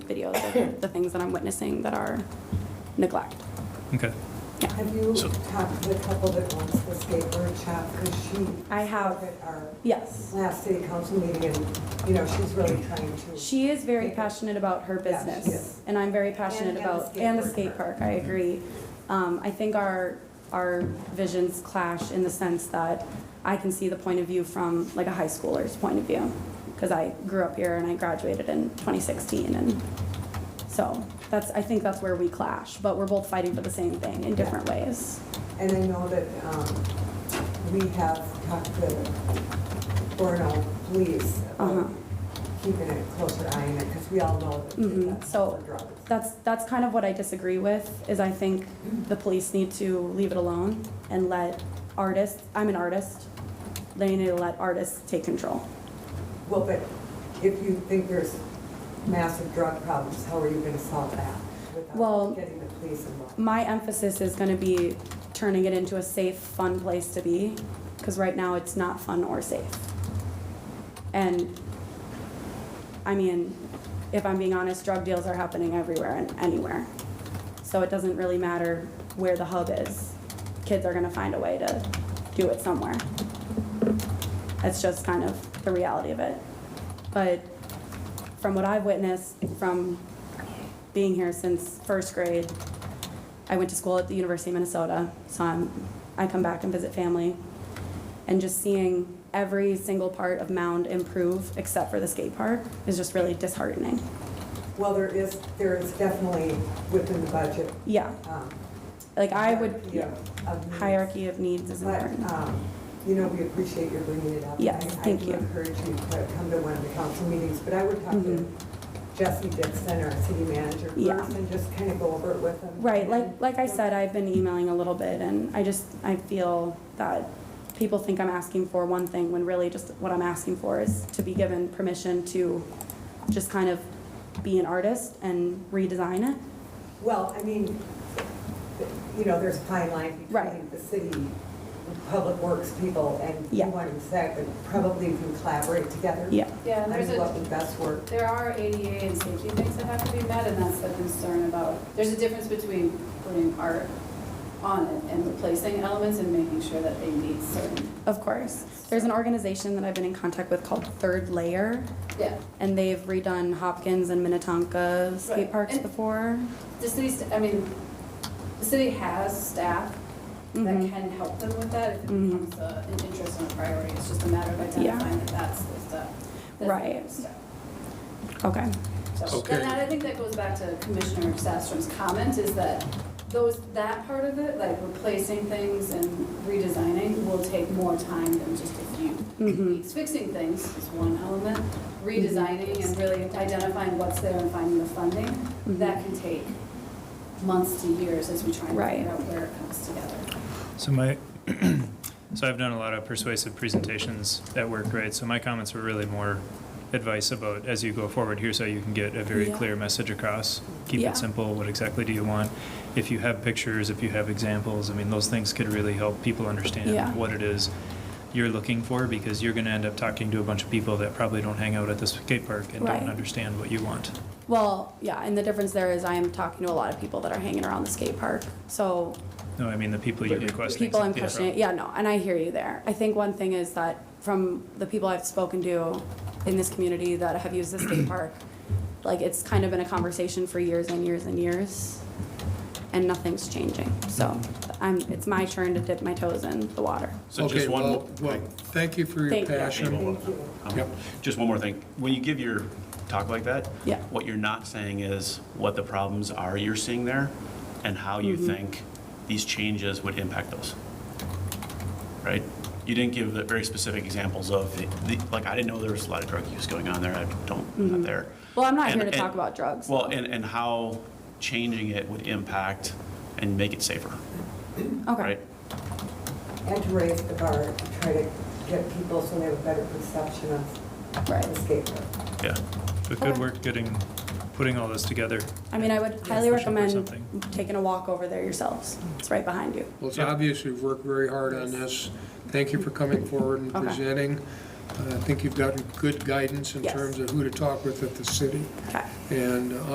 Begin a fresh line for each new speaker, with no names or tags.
videos of the things that I'm witnessing that are neglect.
Okay.
Have you talked to the couple that wants the skate workshop, because she.
I have.
At our
Yes.
last city council meeting, and, you know, she's really trying to.
She is very passionate about her
Yeah, she
business,
is.
and I'm very passionate
And- and the
about,
skate
and the
park.
skate park, I agree. Um, I think our, our visions clash in the sense that I can see the point of view from like a high schooler's point of view, because I grew up here and I graduated in 2016, and so that's, I think that's where we clash, but we're both fighting for the same thing in different ways.
And I know that um, we have talked to Borno Police
Uh-huh.
about keeping a closer eye on it, because we all know that
Mhm.
that's
So-
for drugs.
That's, that's kind of what I disagree with, is I think the police need to leave it alone and let artists, I'm an artist, they need to let artists take control.
Well, but if you think there's massive drug problems, how are you going to solve that
Well-
without getting the police involved?
My emphasis is gonna be turning it into a safe, fun place to be, because right now it's not fun or safe. And, I mean, if I'm being honest, drug deals are happening everywhere and anywhere. So it doesn't really matter where the hub is. Kids are gonna find a way to do it somewhere. That's just kind of the reality of it. But from what I've witnessed, from being here since first grade, I went to school at the University of Minnesota, so I'm, I come back and visit family. And just seeing every single part of Mound improve except for the skate park is just really disheartening.
Well, there is, there is definitely within the budget.
Yeah,
um,
like I would,
hierarchy of- of needs.
hierarchy of needs is
But,
important.
um, you know, we appreciate your bringing it up.
Yes,
I-
thank you.
I do encourage you to come to one of the council meetings, but I would talk
Mhm.
to Jesse Dixon, our city manager,
Yeah.
first, and just kind of go over it with him.
Right, like, like I said, I've been emailing a little bit and I just, I feel that people think I'm asking for one thing when really just what I'm asking for is to be given permission to just kind of be an artist and redesign it.
Well, I mean, you know, there's a fine line between
Right.
the city, public works people, and
Yeah.
you want to say, but probably we can collaborate together.
Yeah.
Yeah, and
I
there's
mean, what
a,
would best work?
there are ADA and safety things that have to be met, and that's the concern about, there's a difference between putting art on it and replacing elements and making sure that they meet certain,
Of course. There's an organization that I've been in contact with called Third Layer,
yeah.
and they've redone Hopkins and Minnetonka skate
Right.
parks
And-
before.
The city's, I mean, the city has staff that
Mhm.
can help them with that if it
Mhm.
becomes a- an interest and a priority. It's just a matter of
Yeah.
identifying that that's the stuff. that's the
Right.
stuff.
Okay.
So,
Okay.
and that, I think that goes back to Commissioner Sastrom's comment, is that those, that part of it, like replacing things and redesigning, will take more time than just a few
Mhm.
weeks. Fixing things is one element, redesigning and really identifying what's there and finding the funding,
Mhm.
that can take months to years as we try and
Right.
figure out where it comes together.
So my, so I've done a lot of persuasive presentations at work, right? So my comments were really more advice about as you go forward, here's how you can get a very
Yeah.
clear message across. Keep
Yeah.
it simple. What exactly do you want? If you have pictures, if you have examples, I mean, those things could really help people understand
Yeah.
what it is you're looking for because you're going to end up talking to a bunch of people that probably don't hang out at the skate park and
Right.
don't understand what you want.
Well, yeah, and the difference there is I am talking to a lot of people that are hanging around the skate park. So
No, I mean, the people you request things
people I'm
from.
pushing, yeah, no, and I hear you there. I think one thing is that from the people I've spoken to in this community that have used the skate park, like it's kind of been a conversation for years and years and years, and nothing's changing. So I'm, it's my turn to dip my toes in the water.
So just one,
Okay,
more-
well, well, thank you for your
Thank you.
passion.
Thank you.
um,
Yep.
just one more thing. When you give your talk like that,
Yeah.
what you're not saying is what the problems are you're seeing there and how you
Mm-hmm.
think these changes would impact those. Right? You didn't give the very specific examples of, the- the- like, I didn't know there was a lot of drug use going on there. I don't, I'm not there.
Well, Mm-hmm. I'm not here
And-
to talk
and-
about drugs,
Well,
though.
and, and how changing it would impact and make it safer,
Okay.
right?
And to raise the bar, to try to get people so they have a better perception of the skate park.
Yeah.
But good
Okay.
work getting, putting all this together.
I mean, I would highly
Push up or
recommend
something.
taking a walk over there yourselves. It's right behind you.
Well, it's
Yeah.
obvious you've worked very hard on this. Thank you for coming forward and
Okay.
presenting. Uh, I think you've gotten good guidance in
Yes.
terms of who to talk with at the city.
Okay.
And uh,